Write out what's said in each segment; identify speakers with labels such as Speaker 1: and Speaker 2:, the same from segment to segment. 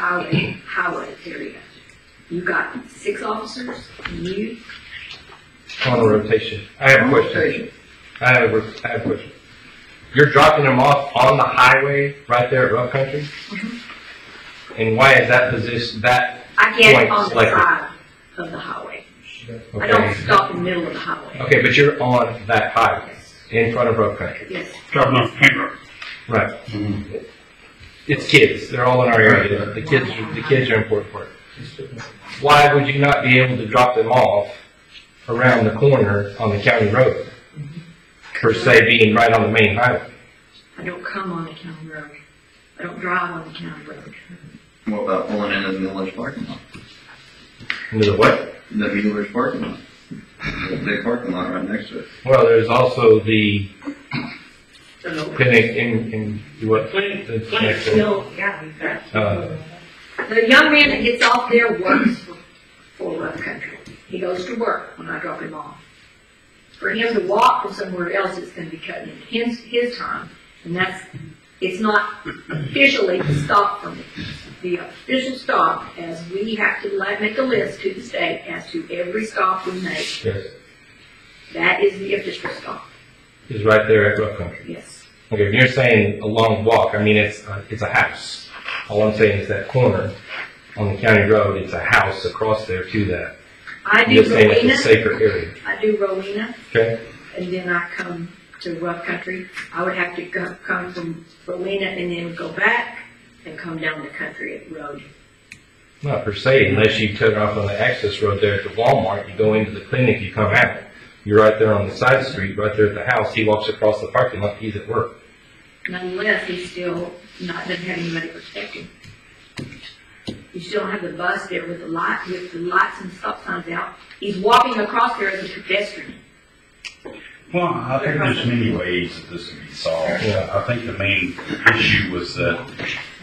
Speaker 1: highway, highway area. You got six officers, you,
Speaker 2: On a rotation. I have a question. I have a, I have a question. You're dropping them off on the highway right there at Rough Country?
Speaker 1: Mm-hmm.
Speaker 2: And why is that position, that,
Speaker 1: I get
Speaker 2: Right,
Speaker 1: on the
Speaker 2: like-
Speaker 1: side of the highway. I don't
Speaker 2: okay?
Speaker 1: stop in the middle of the highway.
Speaker 2: Okay, but you're on that highway, in front of Rough Country.
Speaker 1: Yes,
Speaker 3: Driving off Paint Road.
Speaker 2: Right.
Speaker 1: Mm-hmm.
Speaker 2: It's kids, they're all in our area, the kids, the kids are important for it. Why would you not be able to drop them off around the corner on the county road?
Speaker 1: Mm-hmm.
Speaker 2: Per se being right on the main highway?
Speaker 1: I don't come on the county road. I don't drive on the county road.
Speaker 4: What about pulling into the Miller's parking lot?
Speaker 2: Into the what?
Speaker 4: The Miller's parking lot. The big parking lot right next to it.
Speaker 2: Well, there's also the
Speaker 1: So,
Speaker 2: clinic in, in, what, clinic that's next to,
Speaker 1: no, yeah, you got
Speaker 2: uh,
Speaker 1: The young man that gets off there works for, for Love Country. He goes to work when I drop him off. For him to walk from somewhere else, it's gonna be cutting into his, his time, and that's, it's not officially the stop for me. The official stop, as we have to la- make a list to the state as to every stop we make,
Speaker 2: yes,
Speaker 1: that is the official stop,
Speaker 2: is right there at Rough Country.
Speaker 1: yes.
Speaker 2: Okay, if you're saying a long walk, I mean, it's, a- it's a house. All I'm saying is that corner on the county road, it's a house across there to that.
Speaker 1: I do
Speaker 2: You're saying it's a
Speaker 1: Rowena,
Speaker 2: safer area,
Speaker 1: I do Rowena,
Speaker 2: okay?
Speaker 1: and then I come to Rough Country, I would have to go, come from Rowena and then go back and come down the country road.
Speaker 2: Not per se, unless you cut off on the access road there at the Walmart, you go into the clinic, you come out. You're right there on the side street, right there at the house. He walks across the parking lot, he's at work.
Speaker 1: Nonetheless, he's still not, doesn't have anybody protecting. You still don't have the bus there with the light, with the lights and stop signs out. He's walking across there as a pedestrian.
Speaker 3: Well, I think there's many ways that this can be solved.
Speaker 2: Yeah.
Speaker 3: I think the main issue was that,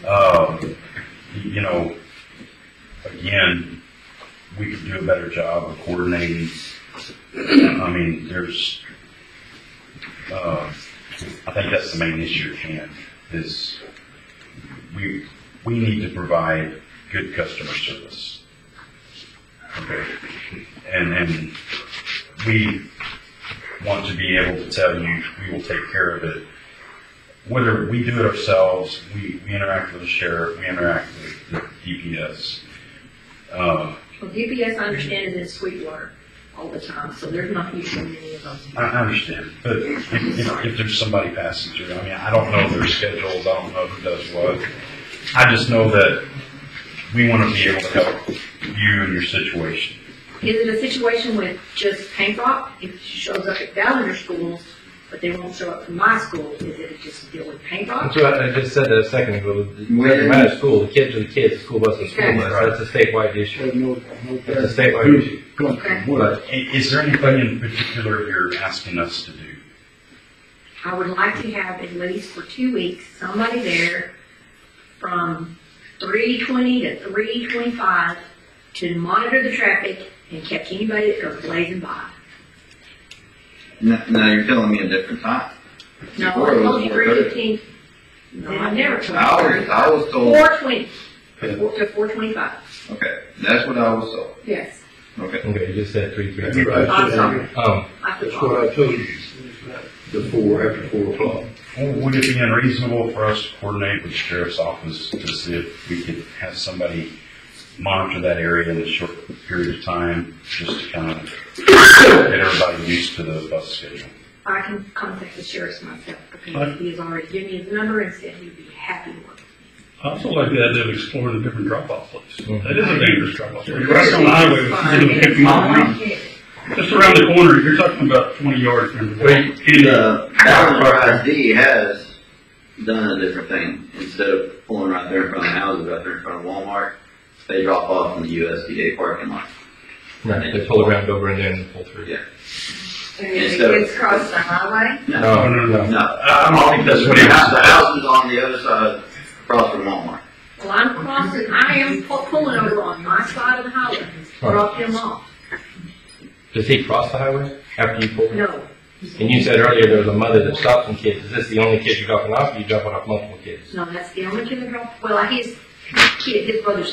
Speaker 3: um, you know, again, we could do a better job of coordinating. I mean, there's, uh, I think that's the main issue at hand, is we, we need to provide good customer service. Okay? And, and we want to be able to tell you, we will take care of it. Whether we do it ourselves, we, we interact with the sheriff, we interact with the DPS. Uh,
Speaker 1: Well, DPS, I understand, is in Sweetwater all the time, so there's not usually many of those.
Speaker 3: I, I understand, but if, if, if there's somebody passing through, I mean, I don't know their schedules, I don't know who does what. I just know that we want to be able to help you in your situation.
Speaker 1: Is it a situation with just paint rock? If she shows up at Ballinger schools, but they won't show up from my school, is it just deal with paint rock?
Speaker 2: That's what I just said a second ago. It doesn't matter school, the kids are the kids, the school bus is the school bus. That's a statewide issue. That's a statewide issue.
Speaker 1: Okay.
Speaker 2: But
Speaker 3: I- Is there anything in particular you're asking us to do?
Speaker 1: I would like to have at least for two weeks, somebody there from three twenty to three twenty-five to monitor the traffic and catch anybody that goes blazing by.
Speaker 4: Now, now you're telling me a different time.
Speaker 1: No,
Speaker 4: Before
Speaker 1: I
Speaker 4: it was
Speaker 1: told you three
Speaker 4: 4:30.
Speaker 1: fifteen. No, I never told
Speaker 4: I was,
Speaker 1: you.
Speaker 4: I was told,
Speaker 1: Four twenty, to four twenty-five,
Speaker 4: okay, that's what I was told,
Speaker 1: yes.
Speaker 4: okay.
Speaker 2: okay, you just said three, three.
Speaker 5: That's right.
Speaker 1: I'm sorry,
Speaker 2: Um,
Speaker 1: I
Speaker 5: That's
Speaker 1: forgot.
Speaker 5: what I told you before, after four o'clock.
Speaker 3: Would it be unreasonable for us to coordinate with the sheriff's office to see if we could have somebody monitor that area in a short period of time, just to kind of get everybody used to the bus schedule?
Speaker 1: I can contact the sheriff myself because
Speaker 6: Right.
Speaker 1: he has already given me his number and said he'd be happy to work.
Speaker 6: I also like the idea of exploring the different drop-off places.
Speaker 3: Mm-hmm.
Speaker 6: That is a dangerous drop-off place.
Speaker 3: Mhm.
Speaker 6: Right on the highway, it's gonna pick them all around. Just around the corner, you're talking about twenty yards from the
Speaker 2: Wait.
Speaker 3: uh,
Speaker 6: Anyway,
Speaker 4: The Ballinger ID has done a different thing. Instead of pulling right there in front of houses, right there in front of Walmart, they drop off in the USDA parking lot.
Speaker 2: right, they pull around over and then pull through.
Speaker 1: And
Speaker 4: if the kids
Speaker 1: cross the highway?
Speaker 2: No, no, no.
Speaker 4: No,
Speaker 3: I don't think that's what
Speaker 4: The
Speaker 3: it
Speaker 4: house- the
Speaker 3: is.
Speaker 4: house is on the other side, across from Walmart.
Speaker 1: Well, I'm crossing, I am pu- pulling over on my side of the highway, drop him off.
Speaker 2: Does he cross the highway after you pull?
Speaker 1: No,
Speaker 2: And you said earlier there was a mother that stopped some kids. Is this the only kid you're dropping off, or you dropping off multiple kids?
Speaker 1: no, that's the only kid that dropped, well, he's, kid, his brother's